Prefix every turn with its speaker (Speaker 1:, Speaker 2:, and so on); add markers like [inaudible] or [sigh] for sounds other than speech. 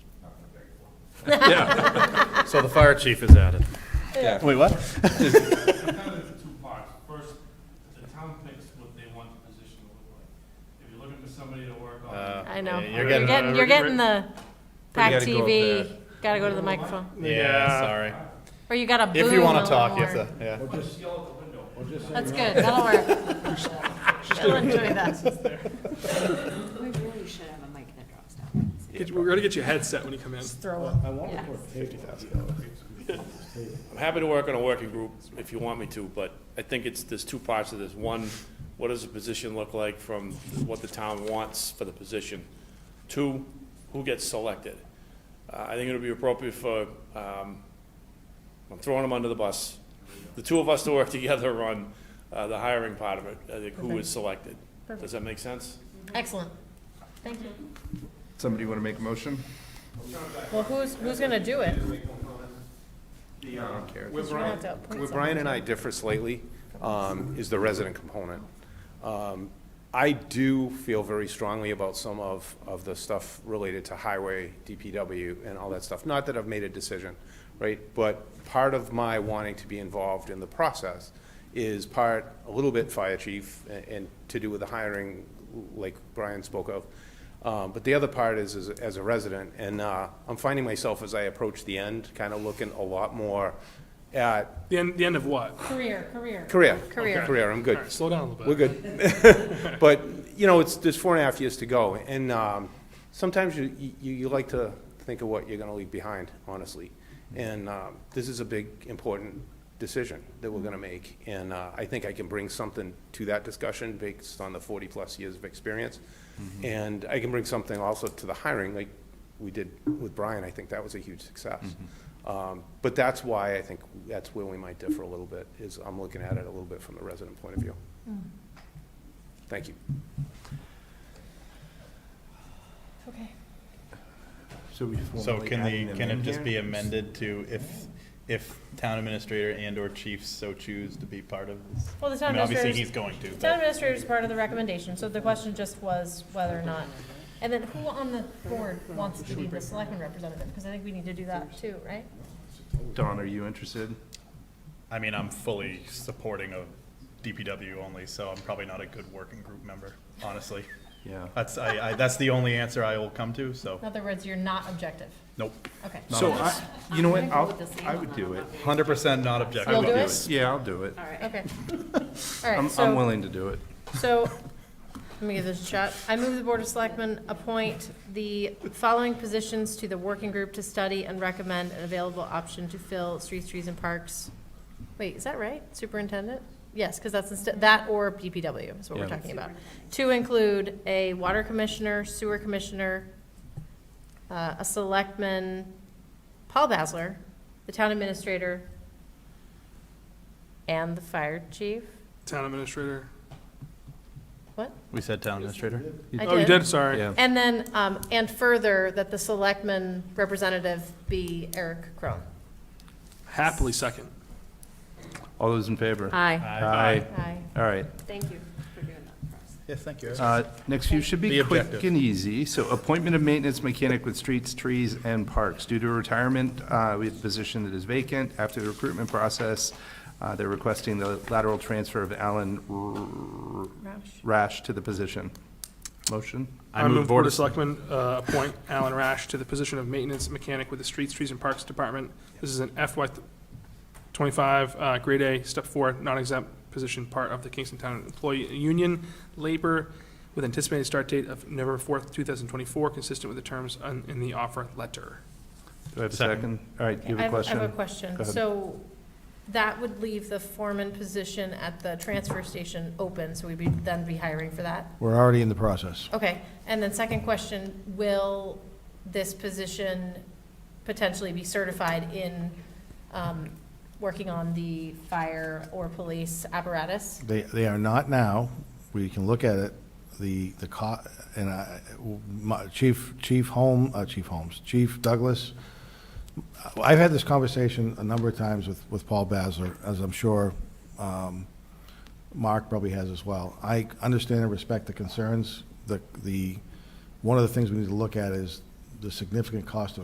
Speaker 1: Yeah,
Speaker 2: So the fire chief is at it.
Speaker 1: yeah.
Speaker 3: Wait, what?
Speaker 4: kind of two parts. First, the town picks what they want the position to look like. If you're looking for somebody to work on.
Speaker 2: Uh,
Speaker 5: I
Speaker 2: yeah,
Speaker 5: know.
Speaker 4: You're
Speaker 5: You're
Speaker 4: getting-
Speaker 5: getting, you're getting the
Speaker 1: gotta
Speaker 5: PAC
Speaker 1: go up
Speaker 5: TV.
Speaker 1: there.
Speaker 5: Gotta go to the microphone.
Speaker 2: Yeah, sorry.
Speaker 5: Or you gotta boom
Speaker 2: If
Speaker 5: a
Speaker 2: you want to
Speaker 5: little
Speaker 2: talk, you
Speaker 5: more.
Speaker 2: have to, yeah.
Speaker 4: Or just yell out the window.
Speaker 5: That's good, that'll work. I'll enjoy that.
Speaker 6: We really should have a mic that drops down.
Speaker 7: Get- We're gonna get you a headset when you come in.
Speaker 5: Throw up.
Speaker 3: wanted
Speaker 5: Yes.
Speaker 3: fifty thousand dollars.
Speaker 2: I'm happy to work on a working group if you want me to, but I think it's, there's two parts to this. One, what does the position look like from what the town wants for the position? Two, who gets selected? Uh, I think it would be appropriate for, um, I'm throwing them under the bus, the two of us to work [laughs] together on uh, the hiring part of it, I think who is selected. Does that make sense?
Speaker 5: Excellent. Thank you.
Speaker 3: Somebody want to make a motion?
Speaker 5: Well, who's, who's gonna do it?
Speaker 8: Where Brian, where Brian and I differ slightly, um, is the resident component. Um, I do feel very strongly about some of, of the stuff related to highway, DPW, and all that stuff. Not that I've made a decision, right? But part of my wanting to be involved in the process is part, a little bit fire chief, a- and to do with the hiring, like Brian spoke of. Um, But the other part is, is as a resident, and uh, I'm finding myself as I approach the end, kind of looking a lot more at
Speaker 7: The end, the end of what?
Speaker 5: Career, career.
Speaker 8: Career.
Speaker 5: Career.
Speaker 8: Career, I'm
Speaker 7: All
Speaker 8: good.
Speaker 7: right, slow down a little
Speaker 8: We're
Speaker 7: bit.
Speaker 8: good. But, you know, it's, there's four and a half years to go, and um, sometimes you, you, you like to think of what you're gonna leave behind, honestly. And um, this is a big, important decision that we're gonna make, and uh, I think I can bring something to that discussion based on the forty-plus years of experience. And I can bring something also to the hiring, like we did with Brian, I think that was a huge success. Um, But that's why I think, that's where we might differ a little bit, is I'm looking at it a little bit from the resident point of view. Thank you.
Speaker 5: Okay.
Speaker 3: So we
Speaker 9: So can the, can it just be amended to if, if town administrator and or chiefs so choose to be part of this?
Speaker 5: Well, the
Speaker 9: I
Speaker 5: town
Speaker 9: mean, obviously, he's
Speaker 5: administrator's,
Speaker 9: going to,
Speaker 5: town
Speaker 9: but
Speaker 5: administrator's part of the recommendation, so the question just was whether or not. And then who on the board wants to be the selectman representative? Because I think we need to do that too, right?
Speaker 3: Don, are you interested?
Speaker 9: I mean, I'm fully supporting of DPW only, so I'm probably not a good working group member, honestly.
Speaker 3: Yeah.
Speaker 9: That's, I, I, that's the only answer I will come to, so,
Speaker 5: In other words, you're not objective.
Speaker 9: nope.
Speaker 5: Okay.
Speaker 7: So I,
Speaker 3: You know what,
Speaker 6: I'm
Speaker 3: I'll,
Speaker 6: good with the same
Speaker 3: I would
Speaker 6: one.
Speaker 3: do it.
Speaker 9: Hundred percent not objective.
Speaker 5: You'll do it?
Speaker 3: Yeah, I'll do it.
Speaker 6: All right.
Speaker 5: Okay. All
Speaker 3: I'm,
Speaker 5: right, so.
Speaker 3: I'm willing to do it.
Speaker 5: So, let me give this a shot. I move the Board of Selectmen appoint the following positions to the working group to study and recommend an available option to fill streets, trees, and parks. Wait, is that right? Superintendent? Yes, because that's, insta- that or DPW is what we're
Speaker 3: Yeah.
Speaker 5: talking about. To include a water commissioner, sewer commissioner, uh, a selectman, Paul Basler, the town administrator, and the fire chief.
Speaker 7: town administrator.
Speaker 9: We said town administrator?
Speaker 5: I
Speaker 7: Oh, you did, sorry.
Speaker 3: Yeah.
Speaker 5: And then, um, and further, that the selectman representative be Eric Crone.
Speaker 7: Happily second.
Speaker 3: All those in favor?
Speaker 5: Aye.
Speaker 3: Aye.
Speaker 5: Aye.
Speaker 3: All right.
Speaker 6: Thank you for doing that for us.
Speaker 9: Yes, thank you.
Speaker 3: Uh, Next few should be
Speaker 9: The
Speaker 3: quick
Speaker 9: objective.
Speaker 3: and easy. So appointment of maintenance mechanic with streets, trees, and parks. Due to retirement, uh, we have a position that is vacant. After the recruitment process, uh, they're requesting the lateral transfer of Alan R- Rash to the position. Motion?
Speaker 7: I move Board of Selectmen uh, [laughs] appoint Alan Rash to the position of maintenance mechanic with the Streets, Trees, and Parks Department. This is an FY twenty-five, uh, grade A, step four, non-exempt position, part of the Kingston Town Employee Union Labor with anticipated start date of November fourth, two thousand twenty-four, consistent with the terms on- in the offer letter.
Speaker 3: Do I have a second?
Speaker 9: Second.
Speaker 3: All right, you
Speaker 5: I
Speaker 3: have a
Speaker 5: have-
Speaker 3: question?
Speaker 5: I have a question.
Speaker 3: Go ahead.
Speaker 5: So that would leave the foreman position at the transfer station open, so we'd be, then be hiring for that?
Speaker 10: We're already in the process.
Speaker 5: Okay, and then second question, will this position potentially be certified in, um, working on the fire or police apparatus?
Speaker 10: They, they are not now. We can look at it. The, the co, and I, my, Chief, Chief Holmes, uh, Chief Holmes, Chief Douglas. I've had this conversation a number of times with, with Paul Basler, as I'm sure, um, Mark probably has as well. I understand and respect the concerns. The, the, one of the things we need to look at is the significant cost of